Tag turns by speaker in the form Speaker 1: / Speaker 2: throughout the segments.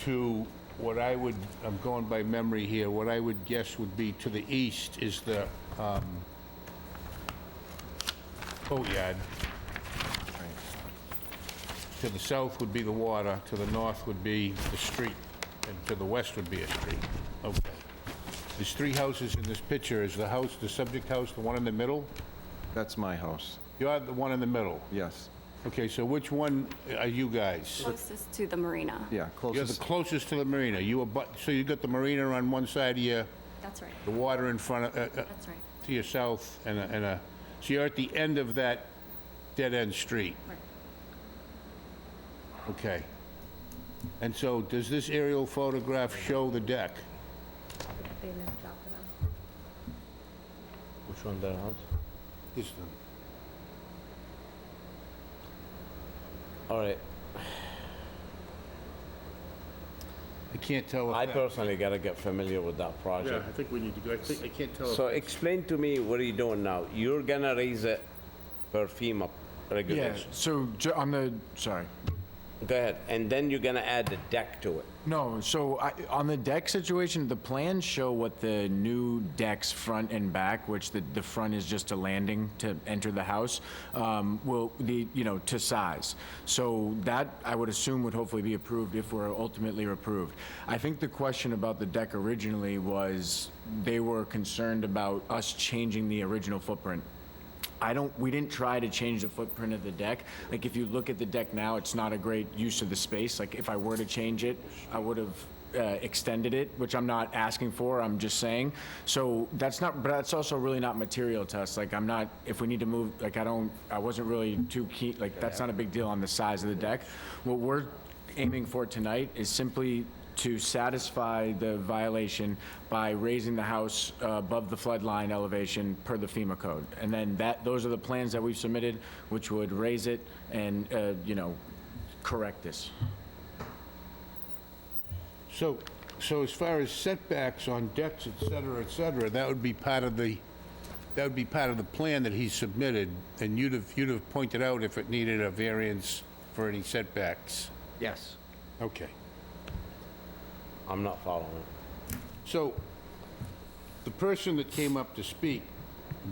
Speaker 1: to what I would, I'm going by memory here, what I would guess would be to the east is the um, boatyard. To the south would be the water, to the north would be the street, and to the west would be a street. Okay. There's three houses in this picture. Is the house, the subject house, the one in the middle?
Speaker 2: That's my house,
Speaker 1: You're the one in the middle.
Speaker 2: yes.
Speaker 1: Okay, so which one are you guys?
Speaker 3: Closest to the marina.
Speaker 1: You're
Speaker 2: Yeah,
Speaker 1: the
Speaker 2: closest,
Speaker 1: closest to the marina. You are, but, so you got the marina on one side of you,
Speaker 3: That's right,
Speaker 1: the water in front of, uh, uh,
Speaker 3: that's right.
Speaker 1: to your south, and a, and a, so you're at the end of that dead-end street.
Speaker 3: Right.
Speaker 1: Okay. And so, does this aerial photograph show the deck?
Speaker 4: Which one, that house?
Speaker 1: This
Speaker 4: All right,
Speaker 1: I can't tell if
Speaker 4: I
Speaker 1: that-
Speaker 4: personally gotta get familiar with that
Speaker 1: Yeah,
Speaker 4: project.
Speaker 1: I think we need to go, I think, I can't tell if...
Speaker 4: So explain to me, what are you doing now? You're gonna raise it per FEMA
Speaker 2: yeah,
Speaker 4: regulation?
Speaker 2: so ju- on the, sorry.
Speaker 4: Go ahead, and then you're gonna add the deck to it?
Speaker 2: No, so I, on the deck situation, the plans show what the new decks, front and back, which the, the front is just a landing to enter the house, um, will, the, you know, to size. So that, I would assume, would hopefully be approved if we're ultimately approved. I think the question about the deck originally was, they were concerned about us changing the original footprint. I don't, we didn't try to change the footprint of the deck. Like, if you look at the deck now, it's not a great use of the space. Like, if I were to change it, I would have uh, extended it, which I'm not asking for, I'm just saying. So that's not, but that's also really not material to us. Like, I'm not, if we need to move, like, I don't, I wasn't really too keen, like, that's not a big deal on the size of the deck. What we're aiming for tonight is simply to satisfy the violation by raising the house uh, above the flood line elevation per the FEMA code. And then that, those are the plans that we've submitted, which would raise it and, uh, you know, correct this.
Speaker 1: So, so as far as setbacks on decks, et cetera, et cetera, that would be part of the, that would be part of the plan that he submitted, and you'd have, you'd have pointed out if it needed a variance for any setbacks.
Speaker 5: Yes.
Speaker 1: Okay.
Speaker 4: I'm not following.
Speaker 1: So, the person that came up to speak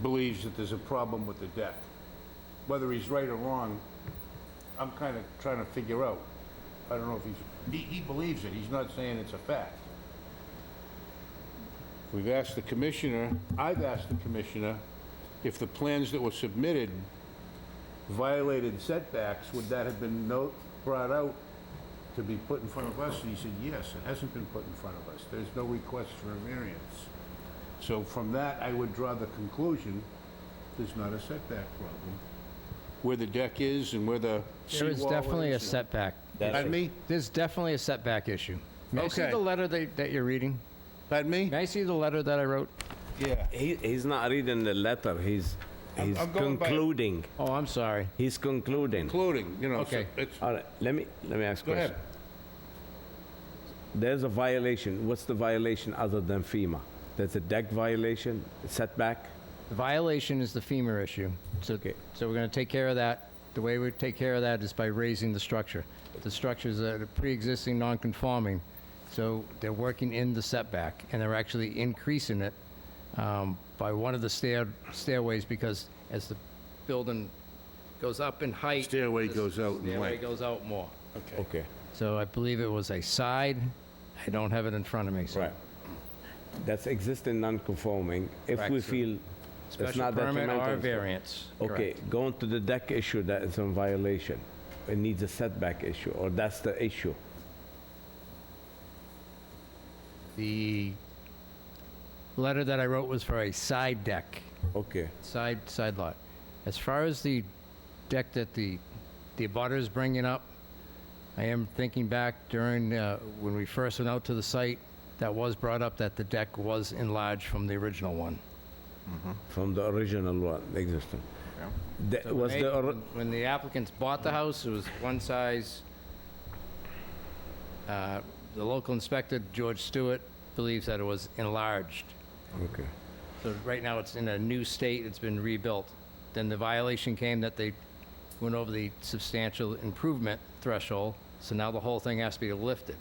Speaker 1: believes that there's a problem with the deck. Whether he's right or wrong, I'm kind of trying to figure out. I don't know if he's, he, he believes it, he's not saying it's a fact. We've asked the commissioner, I've asked the commissioner, if the plans that were submitted violated setbacks, would that have been no, brought out to be put in front of us? And he said, yes, it hasn't been put in front of us. There's no request for a variance. So from that, I would draw the conclusion, there's not a setback problem. Where the deck is and where the
Speaker 5: There is
Speaker 1: seawall
Speaker 5: definitely a
Speaker 1: is.
Speaker 5: setback.
Speaker 1: Pardon me?
Speaker 5: There's definitely a setback issue. May I see
Speaker 1: Okay.
Speaker 5: the letter that, that you're reading?
Speaker 1: Pardon me?
Speaker 5: May I see the letter that I wrote?
Speaker 1: Yeah.
Speaker 4: He, he's not reading the letter, he's, he's
Speaker 1: I'm going by-
Speaker 4: concluding,
Speaker 5: Oh, I'm sorry.
Speaker 4: he's concluding.
Speaker 1: Including, you know, so
Speaker 5: Okay.
Speaker 1: it's,
Speaker 4: All right, let me, let me ask a
Speaker 1: go ahead.
Speaker 4: question. There's a violation, what's the violation other than FEMA? There's a deck violation, setback?
Speaker 5: The violation is the femur issue. So,
Speaker 4: Okay.
Speaker 5: so we're gonna take care of that. The way we take care of that is by raising the structure. The structure's a pre-existing non-conforming, so they're working in the setback, and they're actually increasing it um, by one of the stair, stairways, because as the building goes up in height...
Speaker 1: Stairway
Speaker 5: the
Speaker 1: goes out in
Speaker 5: Stairway
Speaker 1: length.
Speaker 5: goes out more.
Speaker 1: Okay.
Speaker 4: Okay,
Speaker 5: So I believe it was a side, I don't have it in front of me, so...
Speaker 4: right. That's existing non-conforming, if we
Speaker 5: Correct, sir.
Speaker 4: feel it's
Speaker 5: Special
Speaker 4: not
Speaker 5: permit or
Speaker 4: detrimental.
Speaker 5: variance.
Speaker 4: Okay,
Speaker 5: correct.
Speaker 4: going to the deck issue, that is in violation. It needs a setback issue, or that's the issue.
Speaker 5: The letter that I wrote was for a side deck,
Speaker 4: Okay,
Speaker 5: side, side lot. As far as the deck that the, the abutter is bringing up, I am thinking back during, uh, when we first went out to the site, that was brought up that the deck was enlarged from the original one.
Speaker 4: from the original one, existing. That
Speaker 5: So
Speaker 4: Was
Speaker 5: when
Speaker 4: the,
Speaker 5: they-
Speaker 4: ori-
Speaker 5: When the applicants bought the house, it was one size. Uh, The local inspector, George Stewart, believes that it was enlarged.
Speaker 4: okay,
Speaker 5: So right now, it's in a new state, it's been rebuilt. Then the violation came that they went over the substantial improvement threshold, so now the whole thing has to be lifted.